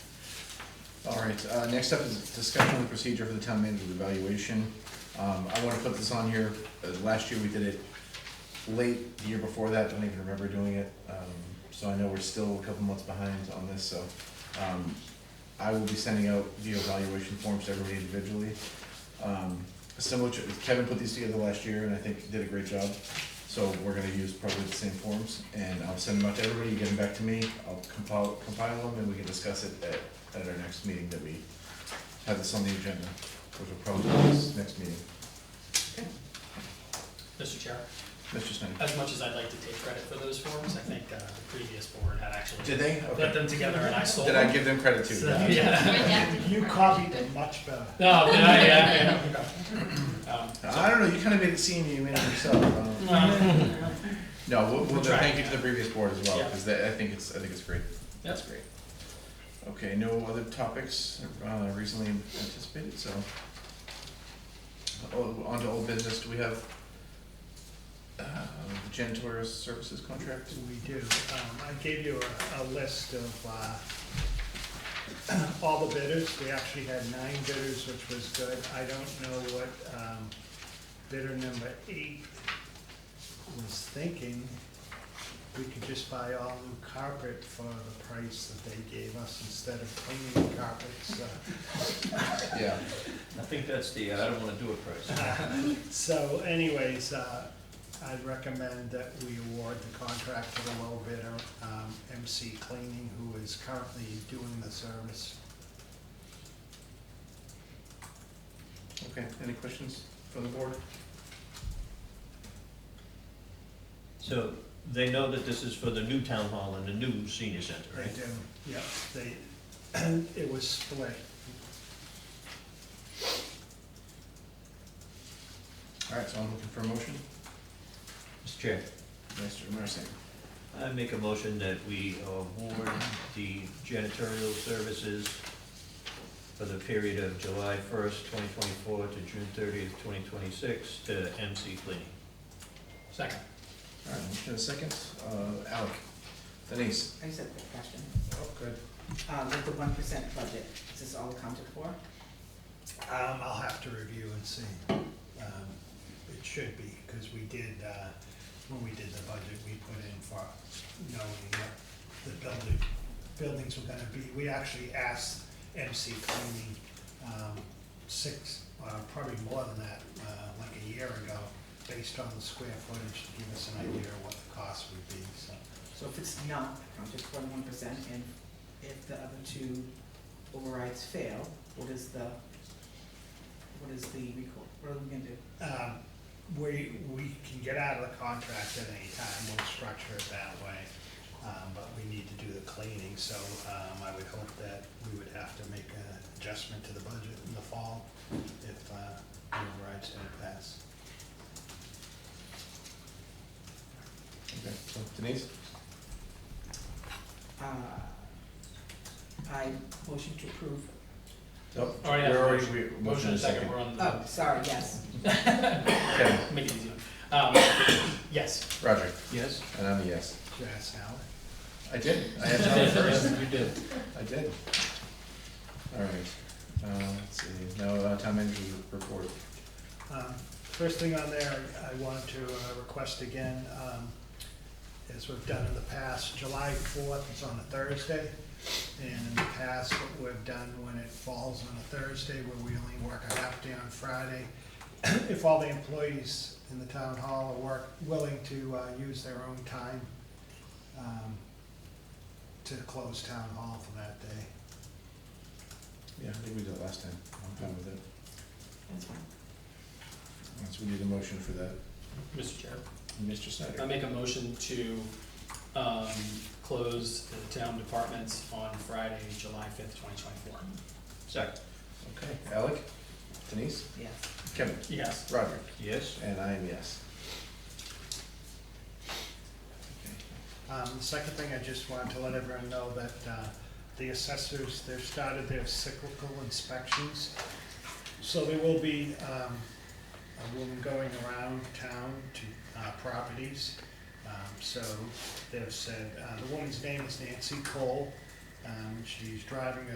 All right, uh, next up is discussion of the procedure for the town manager's evaluation. Um, I wanna put this on here, uh, last year we did it late, the year before that, I don't even remember doing it. Um, so I know we're still a couple months behind on this, so, um, I will be sending out the evaluation forms to everybody individually. Um, similar to, Kevin put these together last year and I think did a great job. So we're gonna use probably the same forms and I'll send them out to everybody, you get them back to me, I'll compile, compile them and we can discuss it at, at our next meeting that we have this on the agenda, which will probably be this next meeting. Mr. Chair, Mr. Snyder, as much as I'd like to take credit for those forms, I think uh, the previous board had actually did they? put Okay. them together and I sold Did I them. give them credit too? So, Yeah. You copied it much better. No, but I, yeah, yeah. Um, I don't know, you kinda made it seem you made it yourself, um. I don't know. no, No, we'll, we'll, We'll try. thank you to the previous board as well, Yeah. cause that, I think it's, I think it's great. That's great. Okay, no other topics uh, recently anticipated, so. Oh, On to old business, do we have uh, the janitorial services contract? We do. Um, I gave you a, a list of, uh, all the bidders. We actually had nine bidders, which was good. I don't know what, um, bidder number eight was thinking. We could just buy all new carpet for the price that they gave us instead of cleaning carpets, uh, Yeah, I think that's the, uh, I don't wanna do it price. So anyways, uh, I'd recommend that we award the contract to the low bidder, um, MC Cleaning, who is currently doing the service. okay, any questions from the board? So they know that this is for the new town hall and the new senior center, They right? do, yep, they, it was split. Alright, so I'm looking for a motion, Mr. Chair, Mr. Marson. I make a motion that we award the janitorial services for the period of July first, twenty twenty-four to June thirtieth, twenty twenty-six to MC Cleaning. Second. Alright, motion and a second, uh, Alec, Denise. I just have a quick question. Oh, good. Uh, with the one percent budget, is this all accounted for? Um, I'll have to review and see. Um, It should be, because we did, uh, when we did the budget, we put in for knowing what the building, buildings were gonna be. We actually asked MC Cleaning, um, six, uh, probably more than that, uh, like a year ago, based on the square footage, to give us an idea of what the cost would be, so. So if it's not accounted for one percent, and if the other two overrides fail, what is the, what is the record, what are we gonna do? Um, We, we can get out of the contract at any time, we'll structure it that way, um, but we need to do the cleaning, so um, I would hope that we would have to make an adjustment to the budget in the fall if uh, the override's gonna pass. Okay, so Denise, Uh, I motion to approve. oh, Oh, yeah. we're already, we, Motion motion and and a second, second. we're on Oh, the, sorry, yes. Okay, make it easy. Um, Yes. Roger, Yes? and I'm a yes. Did I ask Howard? I did, I had Tyler first. You did. I did. All right, uh, let's see, now, uh, town manager report. Um, First thing on there, I want to uh, request again, um, as we've done in the past, July fourth is on a Thursday. And in the past, what we've done when it falls on a Thursday, where we only work a half day on Friday, if all the employees in the town hall are work, willing to uh, use their own time um, to close town hall for that day. Yeah, I think we did it last time, I'm fine with it. That's fine. Once we need a motion for that, Mr. Chair, Mr. I Snyder. make a motion to um, close the town departments on Friday, July fifth, twenty twenty-four. Second. Okay, Alec, Denise, Yes. Kevin, Yes. Roger, Yes? and I am yes. Um, the second thing, I just wanted to let everyone know that, uh, the assessors, they've started their cyclical inspections. So there will be, um, a woman going around town to, uh, properties. Um, so they've said, uh, the woman's name is Nancy Cole. Um, she's driving a